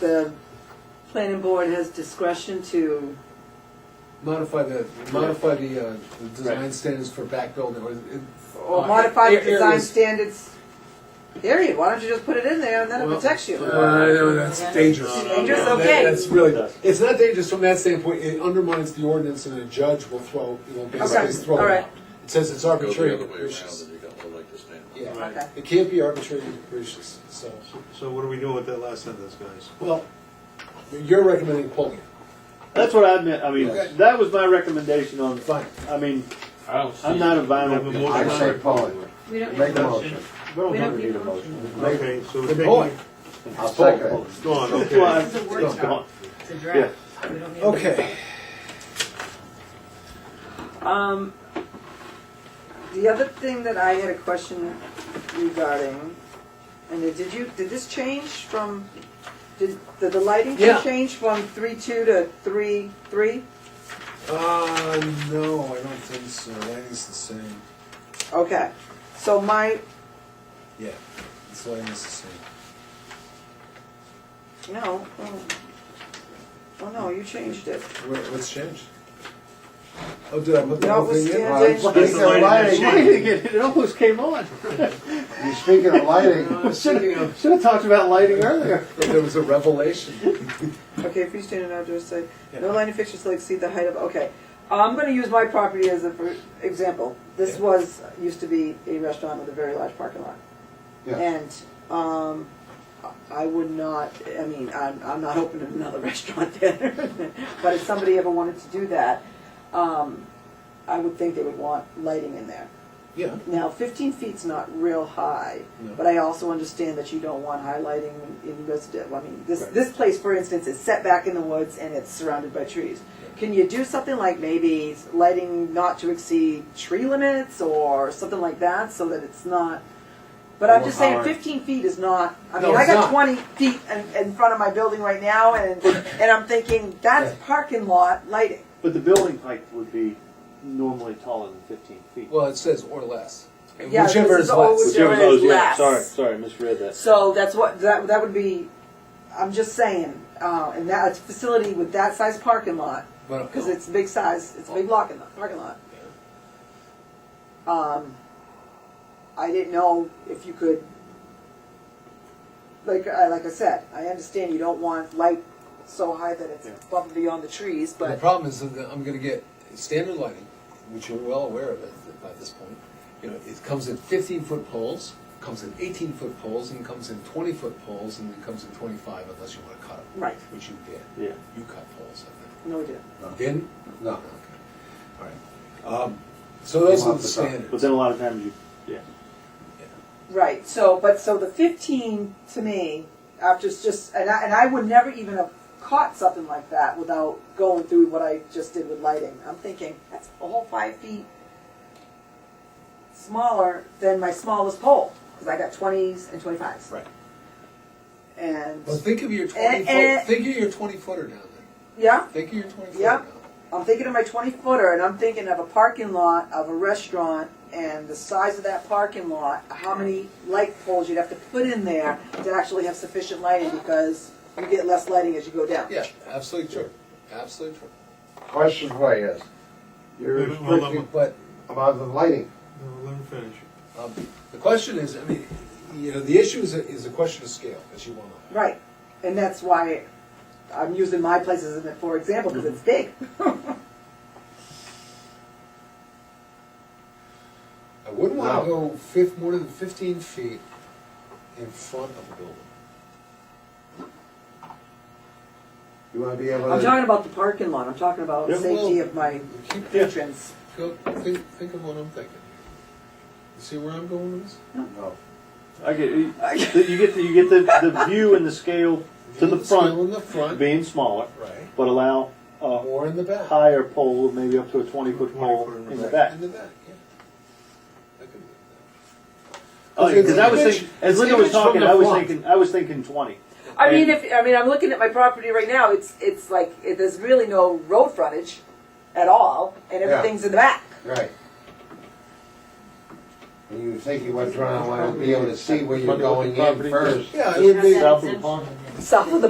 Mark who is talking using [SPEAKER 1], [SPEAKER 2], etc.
[SPEAKER 1] the planning board has discretion to,
[SPEAKER 2] Modify the, modify the, uh, the design
[SPEAKER 3] Right.
[SPEAKER 2] standards for back building, or, it-
[SPEAKER 1] or
[SPEAKER 2] Uh,
[SPEAKER 1] modify the
[SPEAKER 2] here- here
[SPEAKER 1] design
[SPEAKER 2] is-
[SPEAKER 1] standards, period, why don't you just put it in there and then it
[SPEAKER 2] Well,
[SPEAKER 1] protects you?
[SPEAKER 2] Uh, no, that's dangerous.
[SPEAKER 1] Dangerous?
[SPEAKER 2] That-
[SPEAKER 1] Okay.
[SPEAKER 2] That's really,
[SPEAKER 3] It does.
[SPEAKER 2] it's not dangerous from that standpoint, it undermines the ordinance and a judge will throw, you know, basically
[SPEAKER 1] Okay,
[SPEAKER 2] throw
[SPEAKER 1] all
[SPEAKER 2] it
[SPEAKER 1] right.
[SPEAKER 2] out. It says it's
[SPEAKER 4] Go the
[SPEAKER 2] arbitrary
[SPEAKER 4] other
[SPEAKER 2] and
[SPEAKER 4] way around
[SPEAKER 2] capricious.
[SPEAKER 4] and you got more like to stand on.
[SPEAKER 2] Yeah.
[SPEAKER 1] Okay.
[SPEAKER 2] It can't be arbitrary and capricious, so,
[SPEAKER 5] So what are we doing with that last sentence, guys?
[SPEAKER 2] well, you're recommending pulling it.
[SPEAKER 3] That's what I meant, I mean,
[SPEAKER 2] Okay.
[SPEAKER 3] that was my recommendation on,
[SPEAKER 2] Fine.
[SPEAKER 3] I mean,
[SPEAKER 6] I don't see.
[SPEAKER 3] I'm not a
[SPEAKER 5] We have a
[SPEAKER 3] vinyl.
[SPEAKER 5] motion.
[SPEAKER 7] I say pull it.
[SPEAKER 8] We don't
[SPEAKER 7] Make
[SPEAKER 8] need
[SPEAKER 7] a
[SPEAKER 8] a
[SPEAKER 7] motion.
[SPEAKER 3] We don't
[SPEAKER 8] We
[SPEAKER 3] have
[SPEAKER 8] don't
[SPEAKER 3] to
[SPEAKER 8] need
[SPEAKER 3] do
[SPEAKER 8] a
[SPEAKER 3] the
[SPEAKER 8] motion.
[SPEAKER 7] Make-
[SPEAKER 5] Okay, so we're
[SPEAKER 2] Good
[SPEAKER 5] taking,
[SPEAKER 2] boy.
[SPEAKER 5] it.
[SPEAKER 7] I'll second it.
[SPEAKER 5] gone,
[SPEAKER 3] That's
[SPEAKER 5] okay.
[SPEAKER 3] why-
[SPEAKER 8] It's a word
[SPEAKER 3] Gone.
[SPEAKER 8] doc. It's a draft. We don't need a-
[SPEAKER 2] Okay.
[SPEAKER 1] Um, the other thing that I had a question regarding, and it- did you, did this change from, did, did the lighting
[SPEAKER 2] Yeah.
[SPEAKER 1] change from three two to three three?
[SPEAKER 2] Uh, no, I don't think so, lighting's the same,
[SPEAKER 1] Okay, so my,
[SPEAKER 2] yeah, it's lighting's the same.
[SPEAKER 1] no, oh, oh no, you changed it.
[SPEAKER 2] What, what's changed? Oh, did I put the whole thing in?
[SPEAKER 1] Notwithstanding-
[SPEAKER 7] Well, Speaking of lighting,
[SPEAKER 3] It it almost came on.
[SPEAKER 7] you speaking of lighting,
[SPEAKER 3] Should've should've talked about lighting earlier.
[SPEAKER 2] There was a revelation.
[SPEAKER 1] Okay, freestanding outdoor site, no line of fixtures shall exceed the height of, okay. I'm gonna use my property as a, for example. This
[SPEAKER 2] Yeah.
[SPEAKER 1] was, used to be a restaurant with a very large parking lot.
[SPEAKER 7] yeah,
[SPEAKER 1] And, um, I would not, I mean, I'm, I'm not opening another restaurant there, but if somebody ever wanted to do that, um, I would think they would want lighting in there.
[SPEAKER 2] Yeah.
[SPEAKER 1] Now, fifteen feet's not real high,
[SPEAKER 2] No.
[SPEAKER 1] but I also understand that you don't want high lighting in residential. I mean, this,
[SPEAKER 2] Right.
[SPEAKER 1] this place, for instance, is set back in the woods and it's surrounded by trees. Can you do something like maybe lighting not to exceed tree limits or something like that, so that it's not? But I'm
[SPEAKER 3] Or
[SPEAKER 1] just saying,
[SPEAKER 3] high.
[SPEAKER 1] fifteen feet is not, I
[SPEAKER 2] No,
[SPEAKER 1] mean, I
[SPEAKER 2] it's
[SPEAKER 1] got
[SPEAKER 2] not.
[SPEAKER 1] twenty feet in, in front of my building right now, and, and I'm thinking, that's parking lot lighting.
[SPEAKER 3] But the building height would be normally taller than fifteen feet.
[SPEAKER 2] Well, it says or less.
[SPEAKER 1] Yeah,
[SPEAKER 2] Whichever
[SPEAKER 1] this
[SPEAKER 2] is
[SPEAKER 1] is all-
[SPEAKER 2] less.
[SPEAKER 3] Whichever
[SPEAKER 1] Whichever
[SPEAKER 3] those,
[SPEAKER 1] is
[SPEAKER 3] yeah,
[SPEAKER 1] less.
[SPEAKER 3] sorry, sorry, misread that.
[SPEAKER 1] So that's what, that, that would be, I'm just saying, uh, and that, it's a facility with that size parking lot,
[SPEAKER 2] But-
[SPEAKER 1] because it's a big size, it's a big lock in the parking lot. Um, I didn't know if you could, like, I, like I said, I understand you don't want light so high that it's
[SPEAKER 3] Yeah.
[SPEAKER 1] above and beyond the trees,
[SPEAKER 2] The
[SPEAKER 1] but,
[SPEAKER 2] problem is that I'm gonna get standard lighting, which you're well aware of at- by this point. You know, it comes in fifteen foot poles, comes in eighteen foot poles, and comes in twenty foot poles, and it comes in twenty-five unless you wanna cut them.
[SPEAKER 1] right,
[SPEAKER 2] Which you did.
[SPEAKER 3] Yeah.
[SPEAKER 2] You cut poles, I
[SPEAKER 1] no, we didn't.
[SPEAKER 2] think. You didn't?
[SPEAKER 7] no,
[SPEAKER 2] Okay. All right. Um, so those
[SPEAKER 7] Come
[SPEAKER 2] are
[SPEAKER 7] off
[SPEAKER 2] the
[SPEAKER 7] the top.
[SPEAKER 3] But
[SPEAKER 2] standards.
[SPEAKER 3] then a lot of times you, yeah.
[SPEAKER 1] Right, so, but, so the fifteen, to me, after it's just, and I, and I would never even have caught something like that without going through what I just did with lighting. I'm thinking, that's a whole five feet smaller than my smallest pole, because I got twenties and twenty-fives.
[SPEAKER 2] Right.
[SPEAKER 1] And,
[SPEAKER 2] Well, think of your twenty
[SPEAKER 1] eh.
[SPEAKER 2] foot, think of your twenty footer down there.
[SPEAKER 1] yeah,
[SPEAKER 2] Think of your twenty footer
[SPEAKER 1] Yeah.
[SPEAKER 2] down there.
[SPEAKER 1] I'm thinking of my twenty footer, and I'm thinking of a parking lot of a restaurant, and the size of that parking lot, how many light poles you'd have to put in there to actually have sufficient lighting, because you get less lighting as you go down.
[SPEAKER 2] Yeah, absolutely true. Absolutely true.
[SPEAKER 7] question for you is, you're
[SPEAKER 5] Wait, wait, hold on.
[SPEAKER 7] restricting
[SPEAKER 2] But
[SPEAKER 7] about the lighting,
[SPEAKER 5] No, let him finish.
[SPEAKER 2] um, the question is, I mean, you know, the issue is a, is a question of scale, as you well know.
[SPEAKER 1] Right, and that's why I'm using my place as an for example, because it's big.
[SPEAKER 2] I wouldn't want to
[SPEAKER 7] No.
[SPEAKER 2] go fif- more than 15 feet in front of a building.
[SPEAKER 7] you wanna be able
[SPEAKER 1] I'm talking
[SPEAKER 7] to,
[SPEAKER 1] about the parking lot, I'm talking about
[SPEAKER 3] Yeah,
[SPEAKER 1] safety
[SPEAKER 2] well-
[SPEAKER 1] of my
[SPEAKER 2] Keep,
[SPEAKER 1] patrons.
[SPEAKER 2] go, think, think of what I'm thinking. You see where I'm going with this?
[SPEAKER 7] no,
[SPEAKER 3] I get, you get, the- you get the, the view and the scale to the
[SPEAKER 2] Scale
[SPEAKER 3] front
[SPEAKER 2] in the front,
[SPEAKER 3] being smaller,
[SPEAKER 2] right,
[SPEAKER 3] but allow uh, a
[SPEAKER 2] or in the back.
[SPEAKER 3] higher pole, maybe up to a twenty foot pole
[SPEAKER 5] 20 foot
[SPEAKER 3] in the
[SPEAKER 2] Right,
[SPEAKER 3] back.
[SPEAKER 2] In the back, yeah. That could be-
[SPEAKER 3] Oh,
[SPEAKER 2] It's-
[SPEAKER 3] because
[SPEAKER 2] it's
[SPEAKER 3] I was
[SPEAKER 2] image-
[SPEAKER 3] thinking, as
[SPEAKER 2] it's
[SPEAKER 3] Linda was
[SPEAKER 2] image from
[SPEAKER 3] talking,
[SPEAKER 2] the
[SPEAKER 3] I was
[SPEAKER 2] front.
[SPEAKER 3] thinking, I was thinking twenty.
[SPEAKER 1] I mean,
[SPEAKER 3] And-
[SPEAKER 1] if I mean, I'm looking at my property right now. It's it's like it, there's really no road frontage at all, and
[SPEAKER 7] Yeah.
[SPEAKER 1] everything's in the back.
[SPEAKER 7] right. And you think you want to wanna be able to see where you're
[SPEAKER 3] Wonder what the
[SPEAKER 7] going
[SPEAKER 3] property-
[SPEAKER 7] in first.
[SPEAKER 2] Yeah, it would be.
[SPEAKER 3] South of the pond.
[SPEAKER 1] South of the